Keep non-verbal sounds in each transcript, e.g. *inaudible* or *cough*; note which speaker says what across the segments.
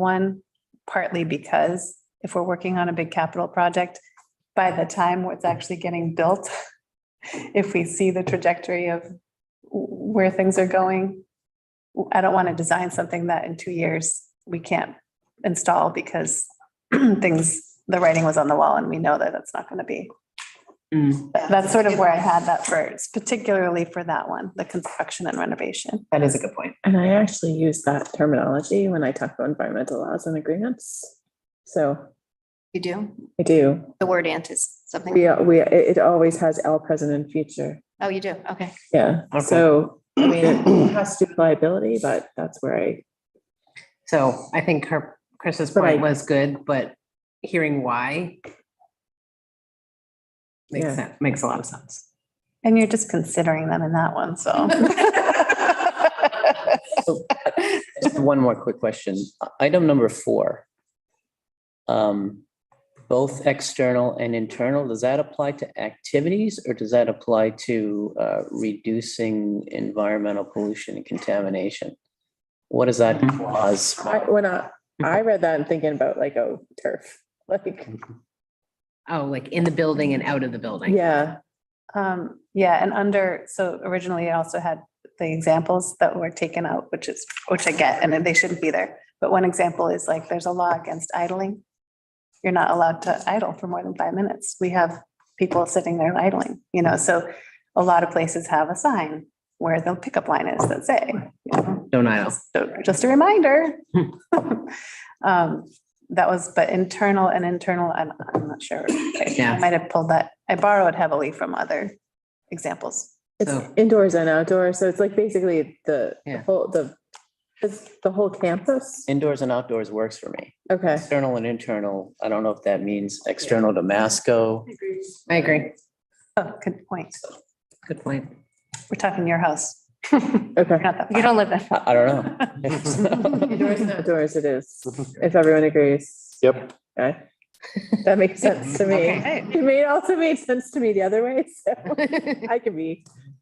Speaker 1: one, partly because if we're working on a big capital project, by the time what's actually getting built, *laughs* if we see the trajectory of where things are going, I don't want to design something that in two years we can't install because *clears throat* things, the writing was on the wall and we know that it's not going to be.
Speaker 2: Mm,
Speaker 1: That- That's sort of where I had that first, particularly for that one, the construction and renovation.
Speaker 2: that is a good point.
Speaker 3: And I actually use that terminology when I talk about environmental laws and agreements. So
Speaker 4: You do?
Speaker 3: I do.
Speaker 4: The word ant is something,
Speaker 3: We, we, it it always has L present and future.
Speaker 4: oh, you do, okay.
Speaker 3: Yeah.
Speaker 2: Okay.
Speaker 3: So, I mean, it has to do with liability, but that's where I,
Speaker 2: So I think her, Chris's
Speaker 3: But
Speaker 2: point
Speaker 3: I-
Speaker 2: was good, but hearing why makes
Speaker 3: Yeah.
Speaker 2: sense, makes a lot of sense.
Speaker 1: And you're just considering them in that one, so. *laughs*
Speaker 5: Just One more quick question. Item number four. Um, Both external and internal, does that apply to activities or does that apply to uh, reducing environmental pollution and contamination? What does that cause?
Speaker 3: I, when I, I read that and thinking about like, oh, turf, like,
Speaker 2: Oh, like in the building and out of the building?
Speaker 3: yeah.
Speaker 1: Um, yeah, and under, so originally it also had the examples that were taken out, which is, which I get, and they shouldn't be there. But one example is like, there's a law against idling. You're not allowed to idle for more than five minutes. We have people sitting there idling, you know, so a lot of places have a sign where the pickup line is that say, you know,
Speaker 2: Don't I?
Speaker 1: so just a *laughs* reminder. Um, That was, but internal and internal, I'm, I'm not sure. I
Speaker 2: Yeah.
Speaker 1: might have pulled that, I borrowed heavily from other examples.
Speaker 3: It's
Speaker 2: So-
Speaker 3: indoors and outdoors. So it's like basically the the
Speaker 2: Yeah.
Speaker 3: whole, the, it's the whole campus.
Speaker 5: Indoors and outdoors works for me.
Speaker 3: Okay.
Speaker 5: External and internal, I don't know if that means external to Masco.
Speaker 2: I agree.
Speaker 1: Oh, good point.
Speaker 2: Good *laughs* point.
Speaker 1: We're talking your house.
Speaker 3: Okay.
Speaker 1: Not that
Speaker 4: You
Speaker 1: far.
Speaker 4: don't live there.
Speaker 5: I I don't know.
Speaker 3: Indoors and outdoors it is, if everyone agrees.
Speaker 6: Yep.
Speaker 3: Okay. *laughs* That makes sense to me.
Speaker 1: Okay.
Speaker 3: It made also made sense to me the other way, *laughs* so I can be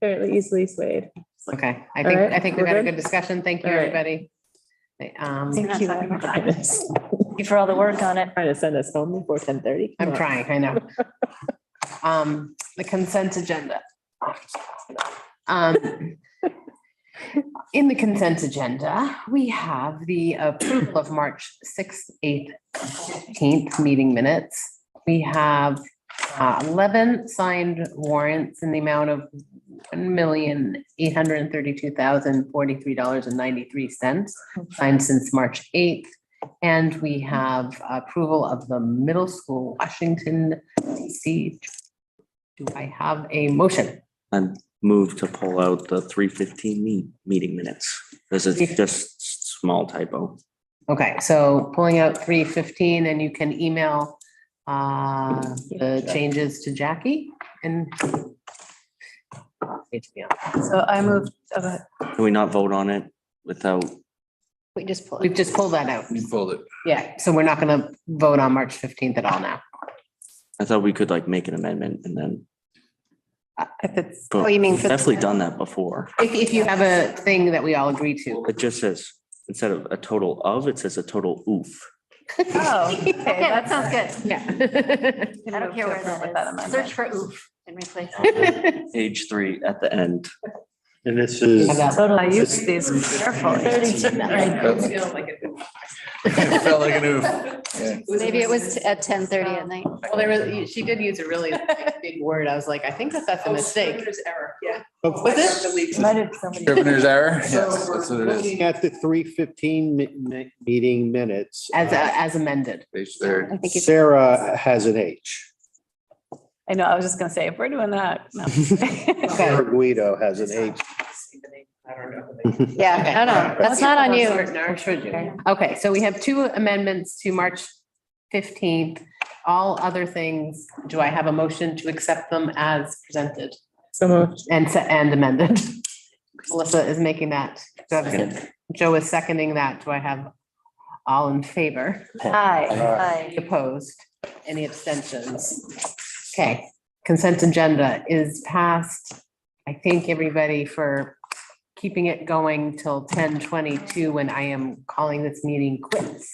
Speaker 3: fairly easily swayed.
Speaker 2: Okay, I
Speaker 3: All
Speaker 2: think,
Speaker 3: right,
Speaker 2: I think we've
Speaker 3: we're
Speaker 2: had a
Speaker 3: good?
Speaker 2: good discussion. Thank you,
Speaker 3: All right.
Speaker 2: everybody. Um,
Speaker 1: Thank you.
Speaker 3: Trying
Speaker 1: everybody.
Speaker 3: to
Speaker 4: Thank you for all the work on it.
Speaker 3: send us home before ten thirty.
Speaker 2: I'm trying, I know. Um, the consent agenda. Um, in the consent agenda, we have the approval of March sixth, eighth, fifteenth meeting minutes. We have uh, eleven signed warrants in the amount of one million, eight hundred and thirty-two thousand, forty-three dollars and ninety-three cents, signed since March eighth. And we have approval of the middle school Washington DC. Do I have a motion?
Speaker 6: Move to pull out the three fifteen me- meeting minutes. This
Speaker 2: Yeah.
Speaker 6: is just small typo.
Speaker 2: Okay, so pulling out three fifteen and you can email uh the changes to Jackie and
Speaker 1: So I moved, uh,
Speaker 6: Can we not vote on it without?
Speaker 4: We just pulled.
Speaker 2: we've just pulled that out.
Speaker 7: Fold it.
Speaker 2: Yeah, so we're not gonna vote on March fifteenth at all now.
Speaker 6: I thought we could like make an amendment and then.
Speaker 1: if it's,
Speaker 4: Oh, you mean for the-
Speaker 6: Definitely done that before.
Speaker 2: If if you have a thing that we all agree to.
Speaker 6: It just says, instead of a total of, it says a total oof.
Speaker 1: oh, okay,
Speaker 4: *laughs* Okay, that
Speaker 1: that's.
Speaker 4: sounds good.
Speaker 2: Yeah. *laughs*
Speaker 4: I don't care where that is. Search for oof and replace.
Speaker 6: Page three at the end.
Speaker 7: And this is.
Speaker 1: I use these carefully.
Speaker 7: It felt like an oof.
Speaker 4: *laughs* Maybe it was at ten thirty at night.
Speaker 2: Well, there was, she did use a *laughs* really big word. I was like, I think that that's a mistake. Oh, error, yeah. Was it?
Speaker 8: *laughs*
Speaker 7: Scrivener's error. Yes, that's what it is.
Speaker 8: Looking at the three fifteen meeting minutes.
Speaker 2: As uh, as amended.
Speaker 7: Page third.
Speaker 4: I *laughs* think you-
Speaker 8: Sarah has an H.
Speaker 1: I know, I was just gonna say, if we're doing that, no. *laughs*
Speaker 2: Okay.
Speaker 8: Sarah Guido has an H.
Speaker 1: *laughs*
Speaker 4: Yeah, no, no, that's not on you.
Speaker 2: Or should you? Okay, so we have two amendments to March fifteenth. All other things, do I have a motion to accept them as presented
Speaker 3: So moved.
Speaker 2: and se- and *laughs* amended? Melissa is making that. Do I have a- Joe is seconding that. Do I have all in favor? Any Opposed? Any abstentions? Okay, consent agenda is passed. I thank everybody for keeping it going till ten twenty-two when I am calling this meeting quits.